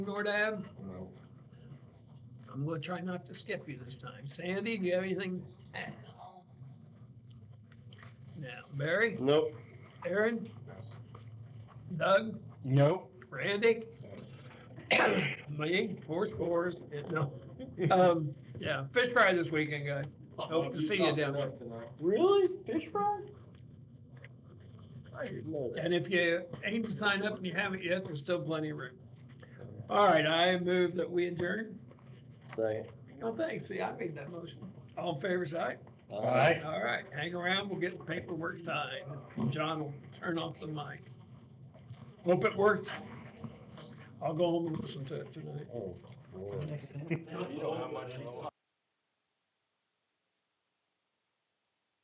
more to add? I'm gonna try not to skip you this time. Sandy, do you have anything? to add? Now, Barry, Nope. Aaron? Doug, Nope. Randy? Me, four scores, and no, um, yeah, fish fry this weekend, guys. Hope to see you down there. Really? Fish fry? I didn't know that. And if you aim to sign up and you haven't yet, there's still plenty of room. All right, I move that we adjourn. Second. Oh, thanks, see, I made that motion. All in favor, say aye. All right. All right, hang around, we'll get the paperwork signed. John will turn off the mic. Hope it worked. I'll go home and listen to it tonight. Oh, Lord. You know how much longer